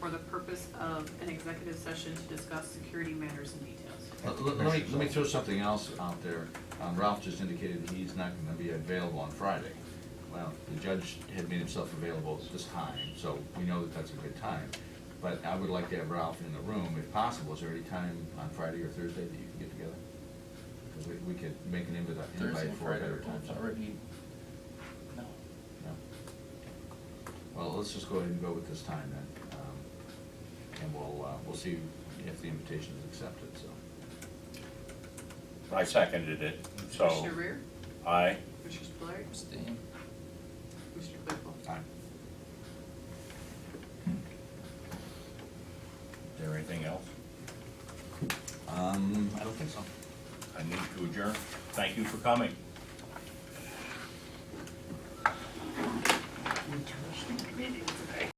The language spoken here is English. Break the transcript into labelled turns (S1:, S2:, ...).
S1: for the purpose of an executive session to discuss security matters and details.
S2: Let let- let me, let me throw something else out there. Um, Ralph just indicated that he's not gonna be available on Friday. Well, the judge had made himself available at this time, so we know that that's a good time. But I would like to have Ralph in the room if possible. Is there any time on Friday or Thursday that you can get together? 'Cause we, we could make an invite,
S3: Thursday
S2: invite
S3: and
S2: for a
S3: Friday
S2: better
S3: are
S2: time.
S3: both already, no.
S2: No? Well, let's just go ahead and go with this time then. Um, And we'll, uh, we'll see if the invitation is accepted, so.
S4: I seconded it, so,
S1: Commissioner Reer,
S4: aye.
S1: Commissioner Spillier,
S3: Abstain.
S1: Commissioner Claypool.
S2: Aye.
S4: Is there anything else?
S2: Um, I don't think so.
S4: I need to adjourn. Thank you for coming.